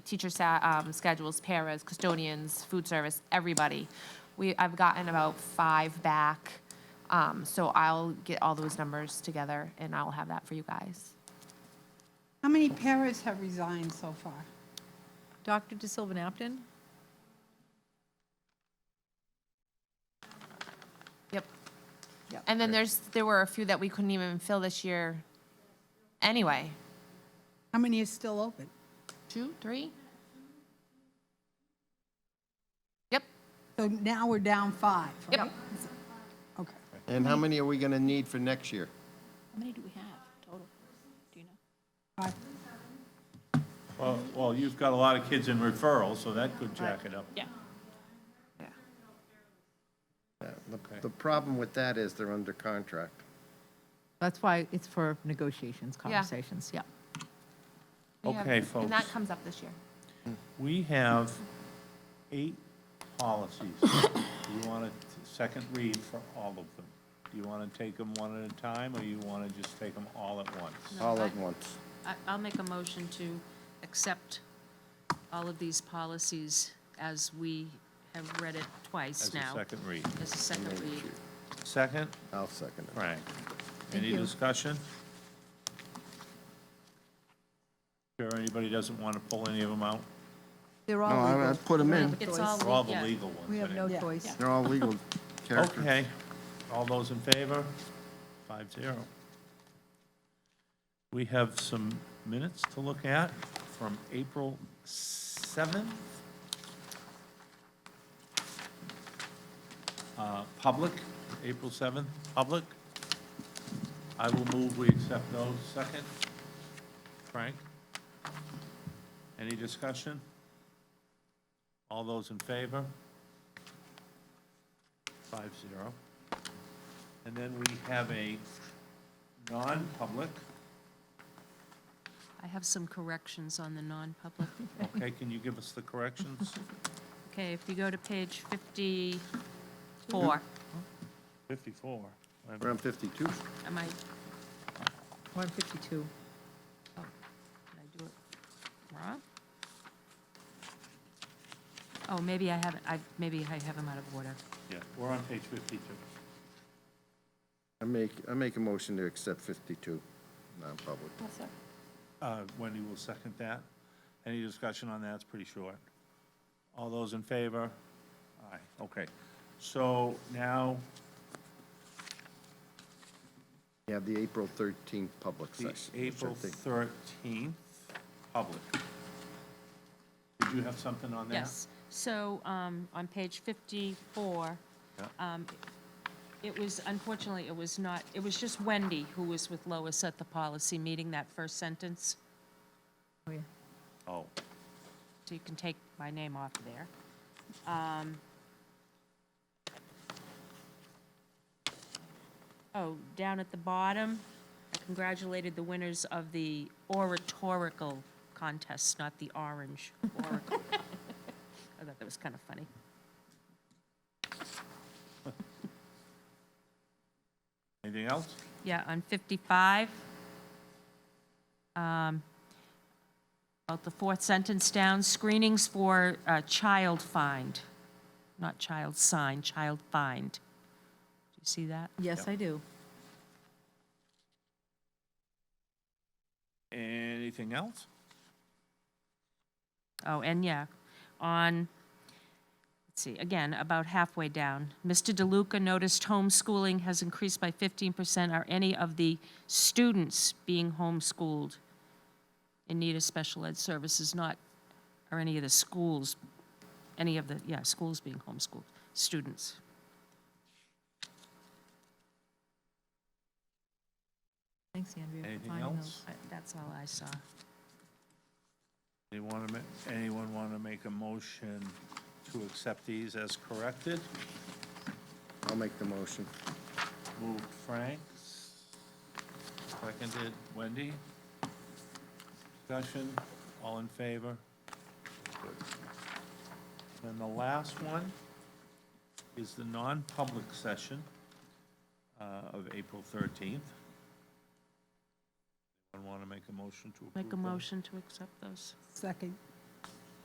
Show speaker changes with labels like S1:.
S1: teacher sa- um, schedules, paras, custodians, food service, everybody. We, I've gotten about five back, um, so I'll get all those numbers together and I'll have that for you guys.
S2: How many paras have resigned so far?
S3: Dr. De Silva Napton?
S1: Yep.
S2: Yep.
S1: And then there's, there were a few that we couldn't even fill this year anyway.
S2: How many are still open?
S1: Two, three? Yep,
S2: So now we're down five. right?
S1: yep.
S2: Okay.
S4: And how many are we going to need for next year?
S5: How many do we have total? Do you know?
S2: Five.
S6: Well, well, you've got a lot of kids in referral, so that could jack it up.
S5: Yeah.
S4: The- The problem with that is they're under contract.
S3: That's why it's for negotiations, conversations, yeah.
S1: We have-
S6: Okay,
S1: And
S6: folks.
S1: that comes up this year.
S6: We have eight policies. Do you want a second read for all of them? Do you want to take them one at a time, or you want to just take them all at once?
S4: All at once.
S7: I- I'll make a motion to accept all of these policies as we have read it twice
S6: As a
S7: now.
S6: second read.
S7: As a second read.
S6: Second,
S4: I'll second it.
S6: Frank. Any discussion? Sure anybody doesn't want to pull any of them out?
S3: They're
S4: No, I-
S3: all
S4: I
S3: legal.
S4: put 'em
S3: We don't have
S4: in.
S3: a
S7: It's
S3: choice.
S7: all-
S6: They're all the
S7: Yeah.
S6: legal ones.
S3: We have no
S6: anyway.
S2: Yeah.
S3: choice.
S4: They're all legal characters.
S6: Okay. All those in favor? Five zero. We have some minutes to look at from April 7th. Uh, Public, April 7th, public. I will move we accept those. Second, Frank? Any discussion? All those in favor? Five zero. And then we have a non-public.
S7: I have some corrections on the non-public.
S6: Okay, can you give us the corrections?
S7: Okay, if you go to page 54,
S6: Fifty-four.
S4: We're on 52.
S7: am I,
S3: 152.
S7: Oh, did I do it wrong? Oh, maybe I haven't, I, maybe I have them out of order.
S6: Yeah, we're on page fifty-two.
S4: I make, I make a motion to accept 52, non-public.
S6: Uh, Wendy will second that. Any discussion on that? It's pretty short. All those in favor? Aye, okay. So now
S4: You have the April 13th public
S6: the
S4: session. which I
S6: April
S4: think-
S6: thirteenth, public. Did you have something on that?
S7: Yes. So um, on page 54,
S6: Yeah.
S7: um, it was, unfortunately, it was not, it was just Wendy who was with Lois at the policy meeting, that first sentence.
S3: Oh, yeah.
S6: Oh,
S7: So you can take my name off of there. Um, Oh, down at the bottom, I congratulated the winners of the oratorical contest, not the orange oracle. I thought that was kind of funny.
S6: anything else?
S7: Yeah, on 55. um, About the fourth sentence down, screenings for uh, child find, not child sign, child find. Do you see that?
S3: Yes, I do.
S6: Anything else?
S7: Oh, and yeah, on, let's see, again, about halfway down. Mr. DeLuca noticed homeschooling has increased by 15%. Are any of the students being homeschooled in need of special ed services? Not, are any of the schools, any of the, yeah, schools being homeschooled, students?
S3: Thanks, Andrea. for
S6: Anything
S3: finding
S6: else?
S3: those.
S7: Uh, That's all I saw.
S6: Anyone want to, ma- anyone want to make a motion to accept these as corrected?
S4: I'll make the motion.
S6: Moved Frank, seconded Wendy. Discussion, all in favor? Then the last one is the non-public session uh, of April 13th. Anyone want to make a motion to approve?
S7: Make a
S6: those?
S7: motion to accept those.
S2: Second.